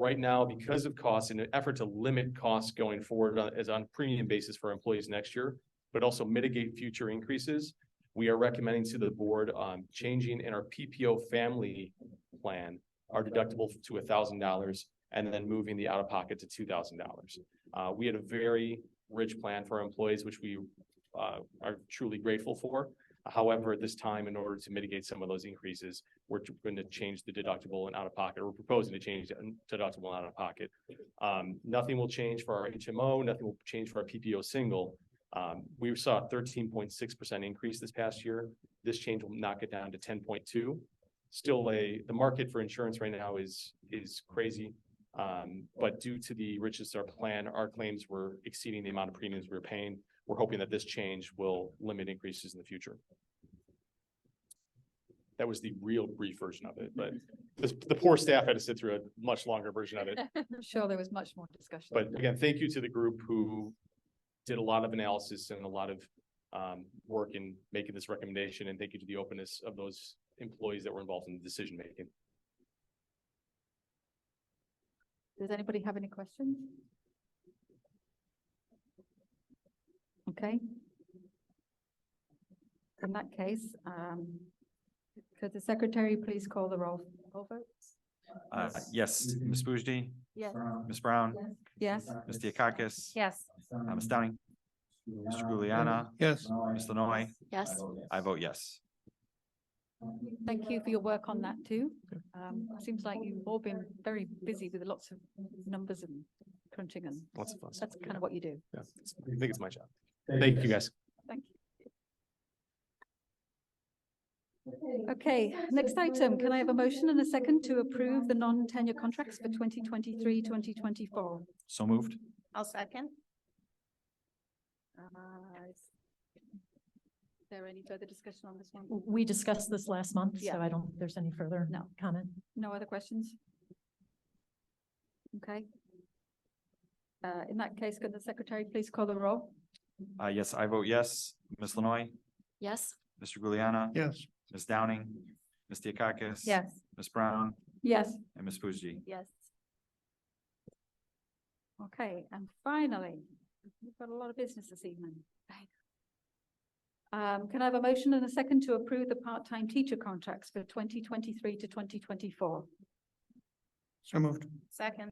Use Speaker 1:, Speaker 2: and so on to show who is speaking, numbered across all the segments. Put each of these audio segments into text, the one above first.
Speaker 1: Right now, because of costs, in an effort to limit costs going forward on- as on premium basis for employees next year, but also mitigate future increases, we are recommending to the board um changing in our PPO family plan our deductible to thousand dollars and then moving the out-of-pocket to two thousand dollars. Uh, we had a very rich plan for our employees, which we uh are truly grateful for. However, at this time, in order to mitigate some of those increases, we're going to change the deductible and out-of-pocket. We're proposing to change the deductible and out-of-pocket. Um, nothing will change for our HMO, nothing will change for our PPO single. Um, we saw a thirteen point six percent increase this past year. This change will knock it down to ten point two. Still a, the market for insurance right now is, is crazy. Um, but due to the richness of our plan, our claims were exceeding the amount of premiums we were paying. We're hoping that this change will limit increases in the future. That was the real brief version of it, but this, the poor staff had to sit through a much longer version of it.
Speaker 2: I'm sure there was much more discussion.
Speaker 1: But again, thank you to the group who did a lot of analysis and a lot of um work in making this recommendation, and thank you to the openness of those employees that were involved in the decision making.
Speaker 2: Does anybody have any questions? Okay. In that case, um, could the secretary please call the roll? Roll votes?
Speaker 3: Uh, yes,
Speaker 4: Mhm.
Speaker 3: Ms. Bujdi,
Speaker 2: Yes.
Speaker 3: Ms. Brown,
Speaker 2: Yes,
Speaker 3: Ms. Diakakis.
Speaker 5: Yes.
Speaker 3: uh, Ms. Downing, Mr. Juliana,
Speaker 4: Yes.
Speaker 3: Ms. Lenoy,
Speaker 5: Yes.
Speaker 3: I vote yes.
Speaker 2: thank you for your work on that too. Um, seems like you've all been very busy with lots of numbers and crunching and
Speaker 1: Lots of fun.
Speaker 2: that's kind of what you do.
Speaker 1: Yeah, I think it's my job. Thank you, guys.
Speaker 2: Thank you. Okay, next item, can I have a motion and a second to approve the non-tenure contracts for 2023-2024?
Speaker 3: So moved.
Speaker 5: I'll second.
Speaker 2: Uh, is There any further discussion on this one?
Speaker 6: We discussed this last month,
Speaker 2: Yeah.
Speaker 6: so I don't, think there's any further
Speaker 2: No.
Speaker 6: comment.
Speaker 2: No other questions? Okay. Uh, in that case, could the secretary please call the roll?
Speaker 3: Uh, yes, I vote yes. Ms. Lenoy,
Speaker 5: Yes.
Speaker 3: Mr. Juliana,
Speaker 4: Yes.
Speaker 3: Ms. Downing, Ms. Diakakis.
Speaker 5: Yes.
Speaker 3: Ms. Brown
Speaker 2: Yes.
Speaker 3: and Ms. Bujdi.
Speaker 5: Yes.
Speaker 2: Okay, and finally, we've got a lot of business this evening. Um, can I have a motion and a second to approve the part-time teacher contracts for twenty twenty-three to twenty twenty-four?
Speaker 4: So moved.
Speaker 5: Second.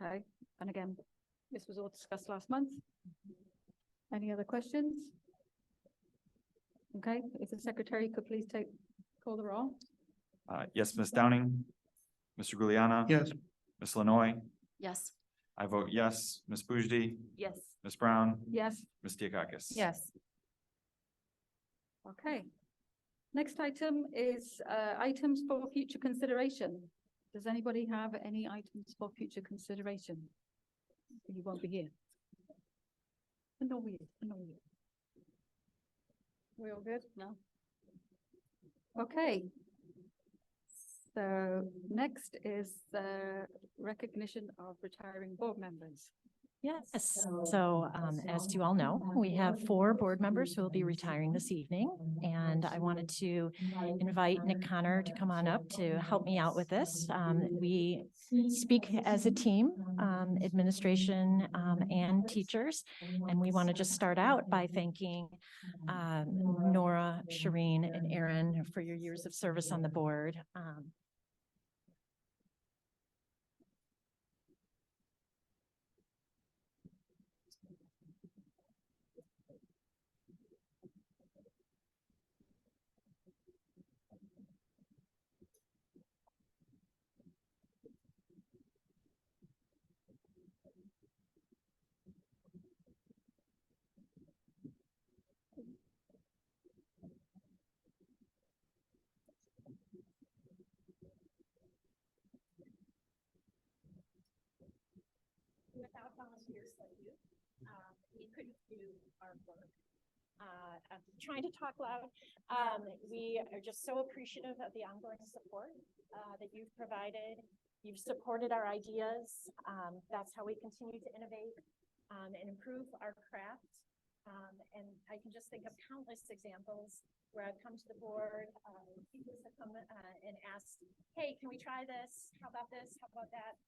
Speaker 2: Okay, and again, this was all discussed last month. Any other questions? Okay, if the secretary could please take, call the roll.
Speaker 3: Uh, yes, Ms. Downing, Mr. Juliana.
Speaker 4: Yes.
Speaker 3: Ms. Lenoy,
Speaker 5: Yes.
Speaker 3: I vote yes. Ms. Bujdi,
Speaker 5: Yes.
Speaker 3: Ms. Brown,
Speaker 2: Yes.
Speaker 3: Ms. Diakakis.
Speaker 5: Yes.
Speaker 2: Okay. Next item is uh, items for future consideration. Does anybody have any items for future consideration? You won't be here. No, we, no, we. We all good? No. Okay. So next is the recognition of retiring board members.
Speaker 6: Yes, so um, as you all know, we have four board members who will be retiring this evening. And I wanted to invite Nick Connor to come on up to help me out with this. Um, We speak as a team, um, administration um, and teachers. And we want to just start out by thanking um, Nora, Shireen, and Erin for your years of service on the board. Um,
Speaker 7: without volunteers like you, um, we couldn't do our work. Uh, I'm trying to talk loud. Um, we are just so appreciative of the ongoing support, uh, that you've provided. You've supported our ideas. Um, that's how we continue to innovate, um, and improve our craft. Um, and I can just think of countless examples where I've come to the board, um, people have come, uh, and asked, hey, can we try this? How about this? How about that?